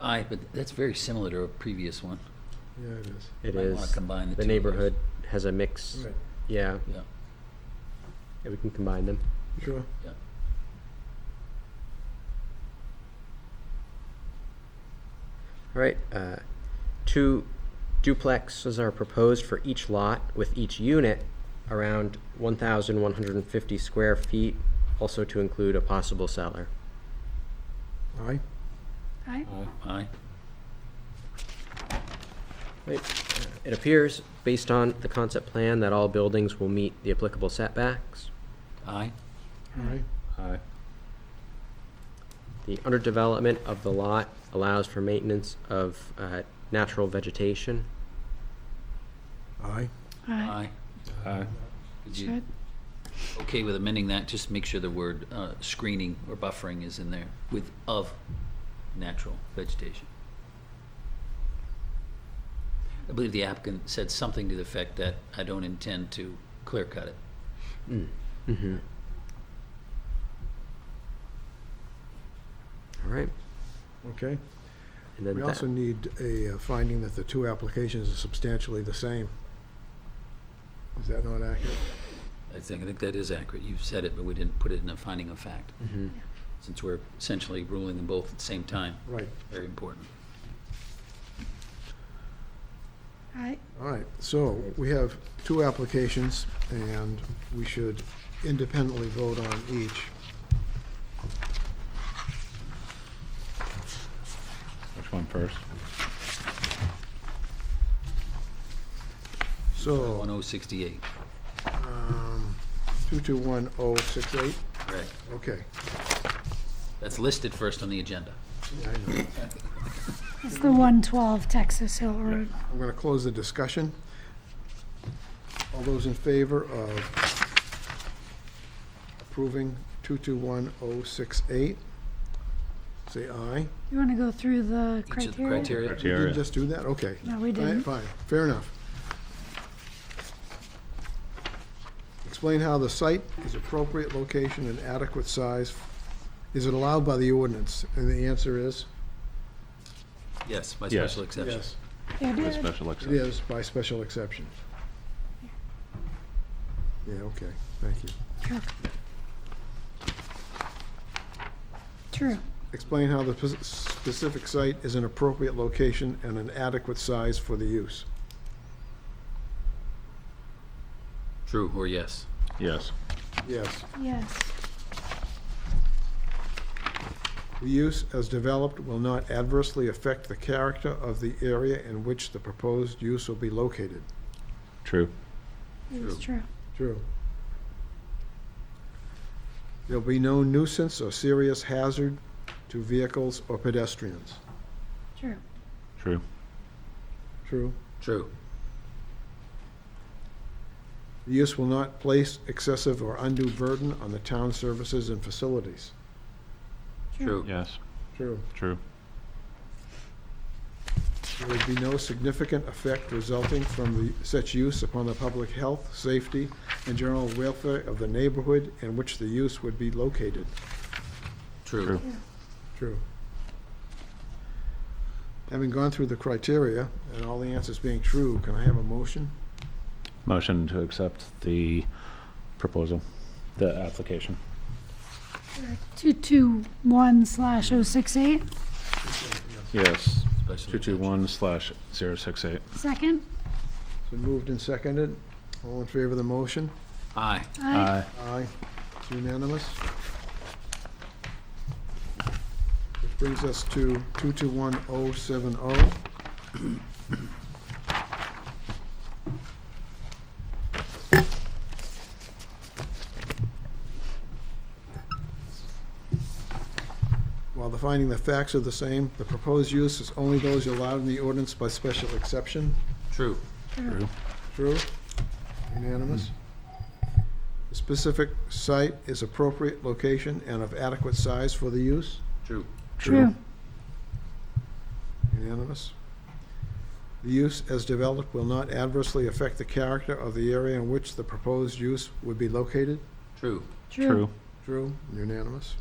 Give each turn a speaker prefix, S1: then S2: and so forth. S1: Aye, but that's very similar to a previous one.
S2: Yeah, it is.
S3: It
S1: Might wanna
S3: is.
S1: combine the two of
S3: The
S1: those.
S3: neighborhood has a mix.
S2: Right,
S3: Yeah,
S1: Yeah,
S3: yeah, we can combine them.
S2: sure.
S1: yeah.
S3: All right, uh, two duplexes are proposed for each lot with each unit around 1,150 square feet, also to include a possible cellar.
S2: Aye,
S4: Aye.
S1: Aye.
S3: Right. Uh, It appears, based on the concept plan, that all buildings will meet the applicable setbacks.
S1: Aye.
S2: aye,
S5: Aye.
S3: The underdevelopment of the lot allows for maintenance of uh, natural vegetation.
S2: aye,
S4: Aye.
S1: Aye.
S5: Aye.
S1: Would you
S4: Should.
S1: okay with amending that? Just make sure the word uh, screening or buffering is in there with of natural vegetation. I believe the applicant said something to the effect that I don't intend to clear cut it.
S3: All right,
S2: okay.
S3: and then
S2: We
S3: that.
S2: also need a uh, finding that the two applications are substantially the same. Is that not accurate?
S1: I think, I think that is accurate. You've said it, but we didn't put it in a finding of fact.
S3: Mm-hmm.
S1: Since we're essentially ruling them both at the same time,
S2: Right,
S1: very important.
S4: Aye.
S2: all right. So we have two applications, and we should independently vote on each.
S5: Which one first?
S2: So,
S1: 1068,
S2: um, 221068,
S1: correct.
S2: oh, okay.
S1: That's listed first on the agenda.
S2: Yeah, I know.
S4: It's the 112 Texas Hill Road.
S2: I'm going to close the discussion. All those in favor of approving 221068, oh, say aye.
S4: You want to go through the
S1: Each of the
S4: criteria?
S1: criteria.
S2: We
S5: Criteria.
S2: didn't just do that? Okay.
S4: No, we
S2: All right,
S4: didn't.
S2: Fine, fair enough. Explain how the site is appropriate location and adequate size. Is it allowed by the ordinance? And the answer is
S1: Yes, by
S5: Yes.
S1: special exception.
S2: yes,
S4: Yeah,
S5: With
S4: did.
S5: special
S2: it
S5: exception.
S2: is by special exception. Yeah, okay, thank you.
S4: True. True.
S2: Explain how the pos- specific site is an appropriate location and an adequate size for the use.
S1: True or yes?
S5: Yes.
S2: Yes.
S4: Yes.
S2: The use as developed will not adversely affect the character of the area in which the proposed use will be located.
S5: True.
S4: It was true.
S2: True. There'll be no nuisance or serious hazard to vehicles or pedestrians.
S4: True.
S5: True.
S2: True.
S1: True.
S2: The use will not place excessive or undue burden on the town services and facilities.
S1: True.
S5: Yes.
S2: True.
S5: True.
S2: There would be no significant effect resulting from the, such use upon the public health, safety, and general welfare of the neighborhood in which the use would be located.
S1: True.
S5: True.
S2: True. Having gone through the criteria and all the answers being true, can I have a motion?
S5: Motion to accept the proposal, the application.
S4: 221 slash 068.
S5: Yes.
S1: Special
S5: Two two
S1: exception.
S5: one slash zero six eight.
S4: Second.
S2: So moved and seconded. All in favor of the motion?
S1: Aye.
S4: Aye.
S2: Aye. It's unanimous. Which brings us to 221070. While the finding the facts are the same, the proposed use is only those allowed in the ordinance by special exception.
S1: True.
S5: True.
S2: True? Unanimous? The Specific site is appropriate location and of adequate size for the use?
S1: True.
S4: True.
S2: Unanimous? The use as developed will not adversely affect the character of the area in which the proposed use would be located?
S1: True.
S4: True.
S5: True.
S2: True? Unanimous?